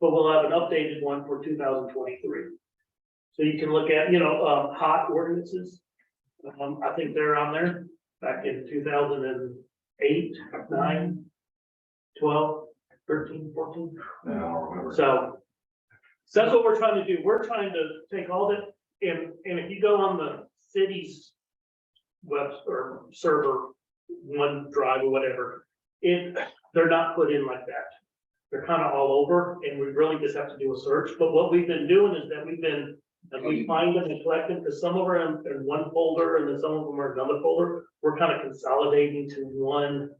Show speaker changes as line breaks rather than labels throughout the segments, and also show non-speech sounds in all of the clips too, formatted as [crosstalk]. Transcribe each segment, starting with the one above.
but we'll have an updated one for two thousand twenty-three. So you can look at, you know, um, hot ordinances. Um, I think they're on there back in two thousand and eight, nine, twelve, thirteen, fourteen.
I don't remember.
So, so that's what we're trying to do. We're trying to take all that, and, and if you go on the city's web or server, one drive or whatever, it, they're not put in like that. They're kind of all over, and we really just have to do a search. But what we've been doing is that we've been, as we find them and collect them, because some of them are in in one folder and then some of them are in another folder, we're kind of consolidating to one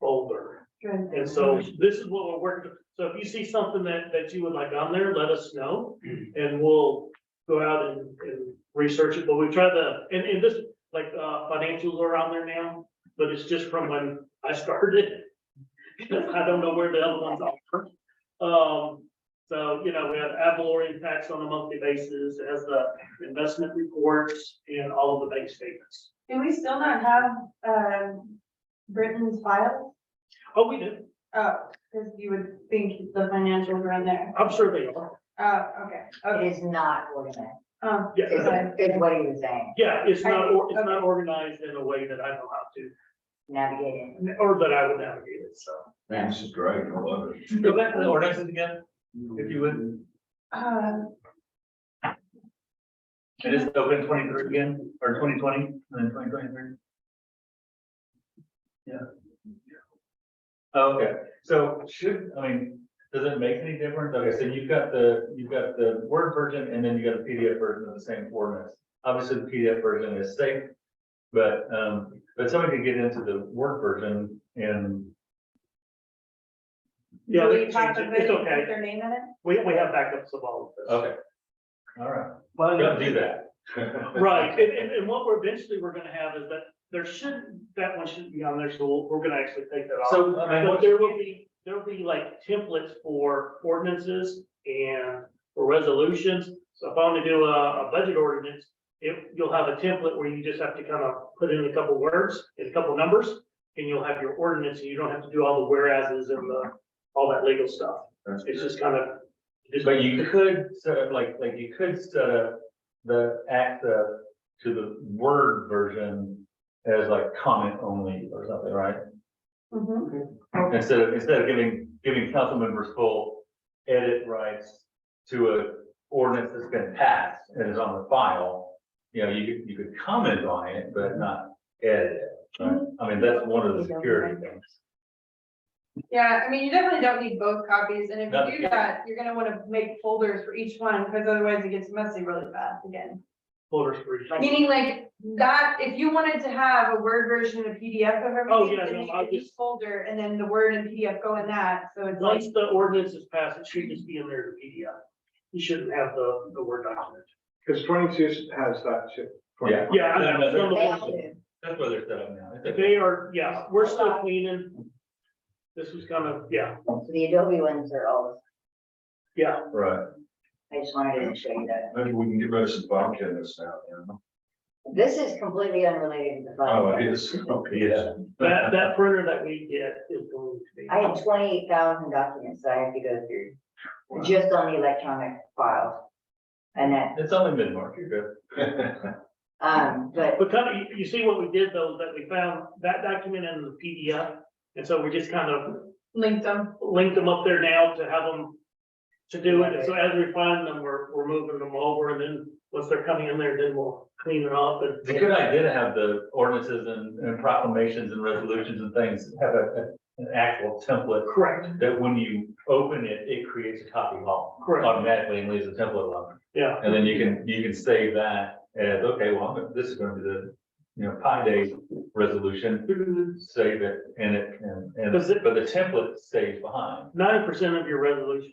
folder. And so this is what we're working, so if you see something that, that you would like on there, let us know, and we'll go out and, and research it, but we try to, and, and this, like, uh, financials are on there now, but it's just from when I started. [laughs] Because I don't know where the other ones are. Um, so, you know, we have Avalor impacts on a monthly basis, it has the investment reports and all of the bank statements.
Do we still not have, um, Britain's file?
Oh, we do,
Oh, because you would think the financials are in there.
I'm sure they are,
Oh, okay, okay.
It is not organized,
Oh,
yeah.
is, is what he was saying,
Yeah, it's not, or- it's
Okay.
not organized in a way that I know how to,
navigating.
or that I would navigate it, so.
Man, this is great, I love it.
Go back to the ordinances again, if you would.
um,
It is open twenty-three again, or twenty-twenty, and then twenty-twenty-three. Yeah. Okay, so should, I mean, does it make any difference? Okay, so you've got the, you've got the Word version and then you got a PDF version of the same format. Obviously, the PDF version is safe, but, um, but somebody could get into the Word version and
Yeah,
do
we
we
can change
have the
it, it's
video with
okay,
Their name in it?
we, we have backups of all of this.
Okay. All right, don't do that.
Right, and, and, and what we're eventually, we're gonna have is that there shouldn't, that one shouldn't be on there, so we'll- we're gonna actually take that off.
[laughs] So, I mean,
But
what-
there will be, there'll be like templates for ordinances and for resolutions. So if I want to do a, a budget ordinance, it, you'll have a template where you just have to kind of put in a couple words and a couple numbers. And you'll have your ordinance, and you don't have to do all the whereas's and the, all that legal stuff.
That's
It's
good.
just kind of. just-
But you could set up, like, like you could set up the access to the Word version as like comment only or something, right?
Mhm.
Instead of, instead of giving, giving council members full edit rights to a ordinance that's been passed and is on the file, you know, you could, you could comment on it, but not edit it. right? I mean, that's one of the security things.
Yeah, I mean, you definitely don't need both copies, and if
No.
you do that, you're gonna wanna make folders for each one, because otherwise it gets messy really fast again.
Voters for each.
Meaning like that, if you wanted to have a Word version and a PDF of
Oh, yeah,
everything,
no,
then you
I'll
could each
just-
folder, and then the Word and PDF go in that, so it's like.
Once the ordinance is passed, it should just be in there to PDF. You shouldn't have the, the word document.
Because twenty-two has that too.
Yeah.
Yeah, I know,
No, no,
some of
They
them-
all do.
That's what they're set up now. It's okay.
They are, yeah, we're still cleaning. This was kind of, yeah,
So the Adobe ones are all,
yeah,
Right.
I just wanted to show you that.
Maybe we can get rid of some vodka in this now, you know?
This is completely unrelated to the
Oh,
file.
it
[laughs]
is, okay.
Yeah.
that, that printer that we get is going to be.
I had twenty-eight thousand documents that I have to go through, just on the electronic files. And that,
It's only mid-market, good.
[laughs]
um, but
But kind of, you, you see what we did though, is that we found that document in the PDF. And so we just kind of
Link them.
linked them up there now to have them to do it. And so as we find them, we're, we're moving them over and then once they're coming in there, then we'll clean it up and.
It's a good idea to have the ordinances and and proclamations and resolutions and things, have a, a- an actual template
Correct,
that when you open it, it creates a copy alone
Correct.
automatically and leaves a template alone.
yeah.
And then you can, you can save that as, okay, well, I'm gonna- this is gonna be the, you know, Pi Day resolution, save it and it, and, and,
Mm-hmm. Does it-
but the template stays behind.
Nine percent of your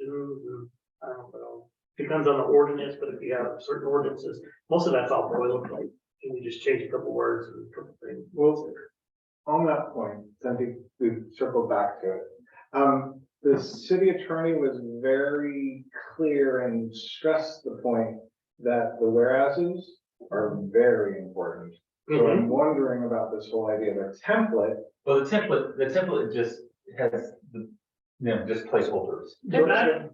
resolution, I don't know, depends on the ordinance, but if you have certain ordinances, most of that's all boilerplate. And you just change a couple words and a couple things.
Well, on that point, I think we've circled back to it. Um, the city attorney was very clear and stressed the point that the whereas's are very important. So
Mhm.
I'm wondering about this whole idea of a template.
Well, the template, the template just has, the you know, just placeholders.
That,